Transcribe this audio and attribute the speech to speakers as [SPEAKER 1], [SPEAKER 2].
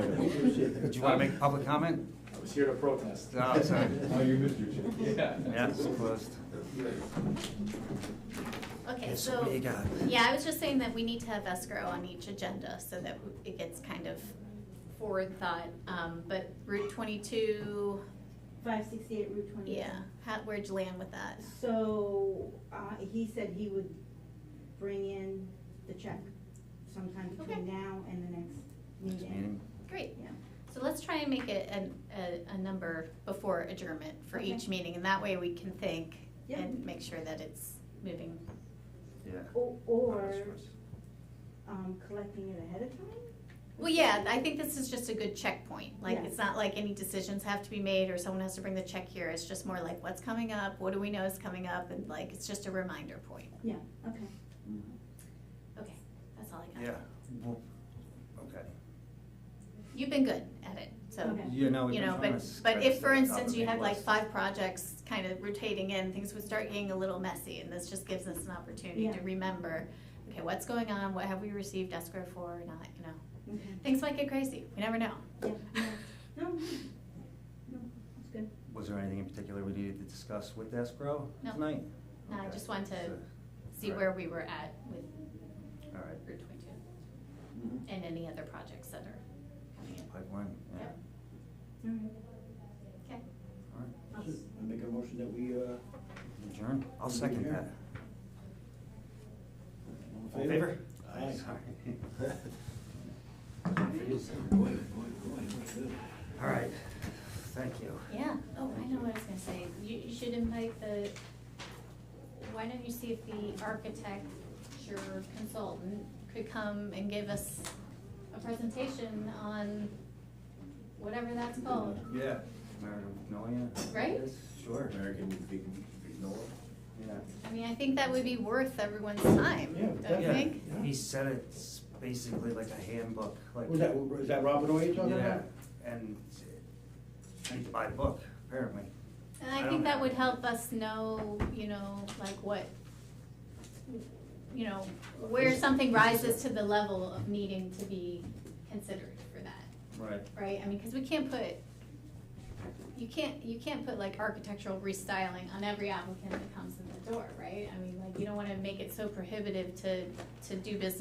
[SPEAKER 1] Did you want to make public comment?
[SPEAKER 2] I was here to protest.
[SPEAKER 1] No, it's, uh,
[SPEAKER 3] Oh, you missed your chance.
[SPEAKER 2] Yeah.
[SPEAKER 1] Yeah, it's closed.
[SPEAKER 4] Okay,
[SPEAKER 1] Yes,
[SPEAKER 4] so,
[SPEAKER 1] what do you got?
[SPEAKER 4] yeah, I was just saying that we need to have escrow on each agenda so that it gets kind of forward thought. Um, but Route twenty-two,
[SPEAKER 5] Five sixty-eight Route twenty.
[SPEAKER 4] yeah, how, where'd you land with that?
[SPEAKER 5] So, uh, he said he would bring in the check sometime between
[SPEAKER 4] Okay.
[SPEAKER 5] now and the next
[SPEAKER 1] Next
[SPEAKER 5] meeting.
[SPEAKER 1] meeting.
[SPEAKER 4] Great,
[SPEAKER 5] Yeah.
[SPEAKER 4] so let's try and make it an, a, a number before adjournment for
[SPEAKER 5] Okay.
[SPEAKER 4] each meeting, and that way we can think
[SPEAKER 5] Yeah.
[SPEAKER 4] and make sure that it's moving.
[SPEAKER 1] Yeah.
[SPEAKER 5] Or, or, um, collecting it ahead of time?
[SPEAKER 4] Well, yeah, I think this is just a good checkpoint, like,
[SPEAKER 5] Yeah.
[SPEAKER 4] it's not like any decisions have to be made or someone has to bring the check here, it's just more like, what's coming up, what do we know is coming up, and like, it's just a reminder point.
[SPEAKER 5] Yeah, okay.
[SPEAKER 4] Mm-hmm. Okay, that's all I got.
[SPEAKER 1] Yeah, well, okay.
[SPEAKER 4] You've been good at it, so,
[SPEAKER 5] Okay.
[SPEAKER 1] You know, we've
[SPEAKER 4] you
[SPEAKER 1] been
[SPEAKER 4] know,
[SPEAKER 1] trying
[SPEAKER 4] but,
[SPEAKER 1] to
[SPEAKER 4] but if, for
[SPEAKER 1] scratch that top
[SPEAKER 4] instance,
[SPEAKER 1] of
[SPEAKER 4] you
[SPEAKER 1] the
[SPEAKER 4] had like
[SPEAKER 1] list.
[SPEAKER 4] five projects kind of rotating in, things would start getting a little messy, and this just gives us an opportunity
[SPEAKER 5] Yeah.
[SPEAKER 4] to remember, okay, what's going on, what have we received escrow for, or not, you know?
[SPEAKER 5] Okay.
[SPEAKER 4] Things might get crazy, we never know.
[SPEAKER 5] Yeah, yeah. No, no, no, that's good.
[SPEAKER 1] Was there anything in particular we needed to discuss with escrow
[SPEAKER 4] No.
[SPEAKER 1] tonight?
[SPEAKER 4] No, I
[SPEAKER 1] Okay.
[SPEAKER 4] just wanted to
[SPEAKER 1] So,
[SPEAKER 4] See
[SPEAKER 1] Right.
[SPEAKER 4] where we were at with
[SPEAKER 1] All right,
[SPEAKER 4] Route twenty-two,
[SPEAKER 1] Mm-hmm.
[SPEAKER 4] and any other projects that are coming in.
[SPEAKER 1] pipeline, yeah.
[SPEAKER 4] Yep.
[SPEAKER 5] All right.
[SPEAKER 4] Okay,
[SPEAKER 1] All right,
[SPEAKER 5] I'll-
[SPEAKER 6] I make a motion that we, uh.
[SPEAKER 1] adjourn, I'll second
[SPEAKER 6] Adjourn.
[SPEAKER 1] that.
[SPEAKER 6] all
[SPEAKER 1] All in favor?
[SPEAKER 6] Aye.
[SPEAKER 1] Sorry.
[SPEAKER 6] Boy, boy, boy, what's good.
[SPEAKER 1] All right, thank you.
[SPEAKER 4] yeah, oh, I know what I was gonna say, you, you should invite the, why don't you see if the architect, your consultant, could come and give us a presentation on whatever that's called?
[SPEAKER 1] Yeah. Meredith Magnolia?
[SPEAKER 4] Right?
[SPEAKER 1] Yes, Sure.
[SPEAKER 6] American Big, Big Noah.
[SPEAKER 1] Yeah.
[SPEAKER 4] I mean, I think that would be worth everyone's time,
[SPEAKER 6] Yeah,
[SPEAKER 4] don't you
[SPEAKER 1] Yeah,
[SPEAKER 4] think?
[SPEAKER 6] Yeah.
[SPEAKER 1] He said it's basically like a handbook, like.
[SPEAKER 6] Was that, was that Robin Oye you're talking
[SPEAKER 1] Yeah,
[SPEAKER 6] about?
[SPEAKER 1] and I need to buy the book, apparently.
[SPEAKER 4] And
[SPEAKER 1] I
[SPEAKER 4] I
[SPEAKER 1] don't-
[SPEAKER 4] think that would help us know, you know, like what, you know, where something rises to the level of needing to be considered for that,
[SPEAKER 1] Right.
[SPEAKER 4] right? I mean, because we can't put, you can't, you can't put like architectural restyling on every applicant that comes in the door, right? I mean, like, you don't want to make it so prohibitive to, to do business